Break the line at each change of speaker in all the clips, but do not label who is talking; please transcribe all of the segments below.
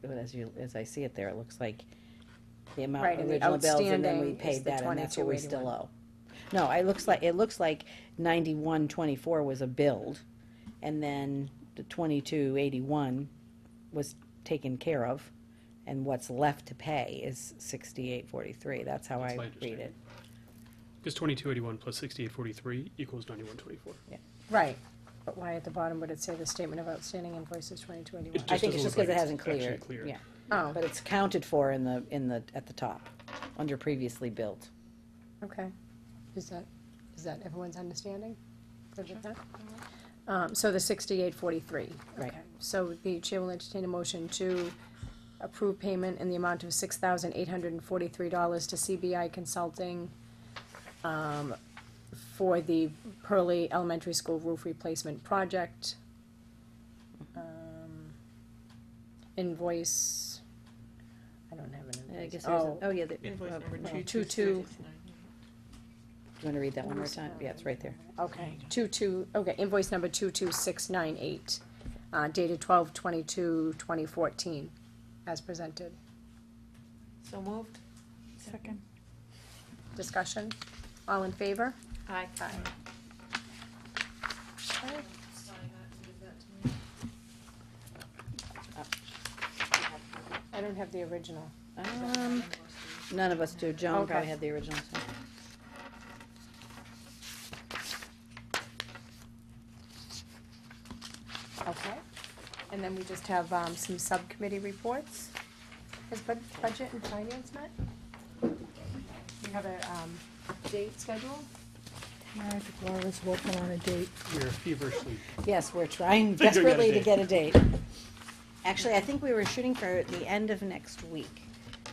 But as you, as I see it there, it looks like the amount
Right, and the
original bills and then we
outstanding is
paid
the
that and that's what we
22.81.
still owe. No, it looks like, it looks like ninety-one twenty-four was a build and then the twenty-two eighty-one was taken care of. And what's left to pay is sixty-eight forty-three. That's how
That's my
I read it.
understanding. Because twenty-two eighty-one plus sixty-eight forty-three equals ninety-one twenty-four.
Right, but why at the bottom would it say the statement of outstanding invoices twenty-two eighty-one?
It
I
just
think it's
doesn't
just
look
because it
like it's
hasn't
actually
cleared,
cleared.
yeah.
Oh,
But it's counted for in the, in the, at the top, under previously built.
okay. Is that, is that everyone's understanding? Good with that? Um, so the sixty-eight forty-three.
Mm-hmm. Right.
Okay. So the chair will entertain a motion to approve payment in the amount of six thousand eight hundred and forty-three dollars to CBI Consulting um, for the Pearly Elementary School roof replacement project. Um, Invoice, I don't have an
I guess there's,
invoice.
a-
Oh,
oh, yeah, the, do you
Invoice number
no.
two two
Two, two.
six nine.
wanna read that one more time? Yeah, it's right there.
Okay, two two, okay, invoice number two two six nine eight, uh, dated twelve twenty-two twenty fourteen, as presented.
So moved. Second.
Discussion, all in favor?
Aye.
I don't have the original.
Um, none of us do. Joan
Okay.
probably had the original, so.
Okay, and then we just have, um, some subcommittee reports. Has bud- budget and finance met? We have a, um, date scheduled?
I think Laura's working on a date.
We're feverishly
Yes, we're trying
Figuring out a
desperately to
date.
get a date. Actually, I think we were shooting for the end of next week,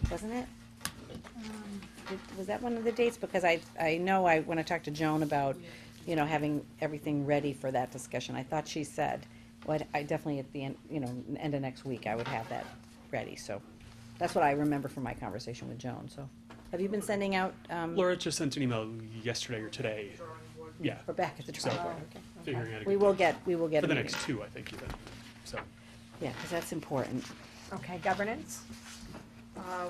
wasn't it? Did- Was that one of the dates? Because I, I know I, when I talked to Joan about, you know, having everything ready for that discussion, I thought she said, well, I'd- I definitely at the end, you know, n- end of next week, I would have that ready, so. That's what I remember from my conversation with Joan, so. Have you been sending out, um,
Laura just sent an email yesterday or today. Yeah,
we're back at the
So-
drawing
Oh,
board?
okay.
figuring out a
We
good
will
date.
get, we will get
For
a
the
meeting.
next two, I think, even. So,
Yeah, because that's important.
Okay, governance?
Uh,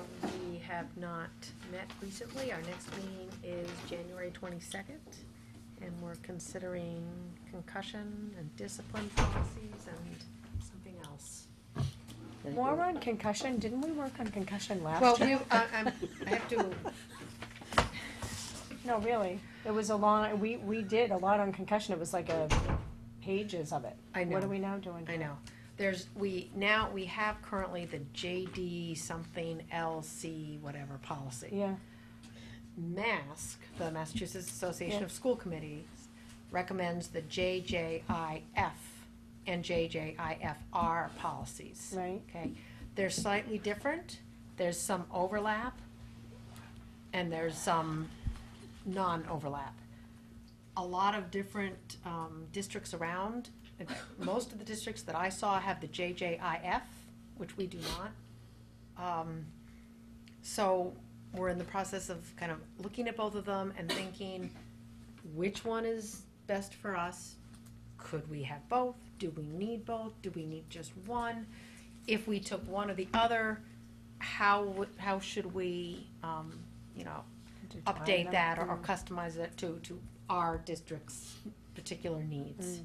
we have not met recently. Our next meeting is January twenty-second, and we're considering concussion and discipline policies and something else.
More on concussion, didn't we work on concussion last
Well,
year?
we, I, I'm, I have to,
No, really, it was a long, we, we did a lot on concussion, it was like a pages of it.
I
What
know.
are we now doing?
I know, there's, we, now, we have currently the JD something LC whatever policy.
Yeah,
MASC, the Massachusetts Association
Yeah.
of School Committees, recommends the JJIF and JJIFR policies.
right,
Okay, they're slightly different, there's some overlap, and there's some non-overlap. A lot of different, um, districts around, and most of the districts that I saw have the JJIF, which we do not. Um, so, we're in the process of kind of looking at both of them and thinking, which one is best for us? Could we have both? Do we need both? Do we need just one? if we took one or the other, how, would- how should we, um, you know, update that or or customize it to, to our district's particular needs?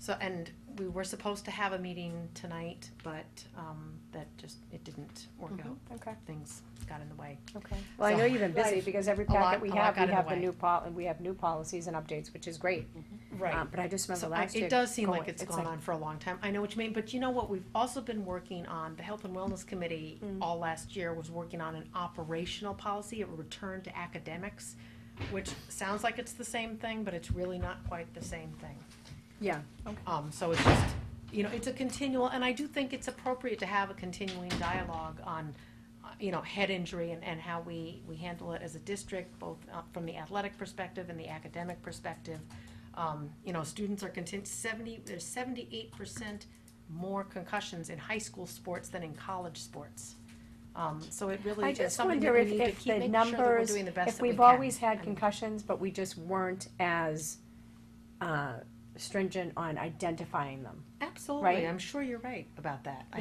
So, and we were supposed to have a meeting tonight, but, um, that just, it didn't work out.
okay,
Things got in the way.
okay. Well, I know
So-
you've been busy,
Life.
because every
lot-
packet we
a lot
have,
got
we
in the
have the
way.
new pol, and we have new policies and updates, which is great.
Um,
Uh, But I just remember
So I-
last year.
it does seem like
going-
it's gone
like-
on for a long time. I know what you mean, but you know what? We've also been working on, the Health and Wellness Committee
Mm.
all last year was working on an operational policy, a return to academics, which sounds like it's the same thing, but it's really not quite the same thing.
Yeah,
Um, so it's just, you know, it's a continual, and I do think it's appropriate to have a continuing dialogue on, uh, you know, head injury and, and how we, we handle it as a district, both uh, from the athletic perspective and the academic perspective. Um, you know, students are content, seventy, there's seventy-eight percent more concussions in high school sports than in college sports. Um, so it really
I
is
just
something
wonder
that we
if,
need to
if
keep
the
making sure that we're
numbers,
doing the best
if
that we
we've
can.
always had
I mean-
concussions, but we just weren't as, uh, stringent on identifying them.
Absolutely,
right?
I'm sure you're right about that.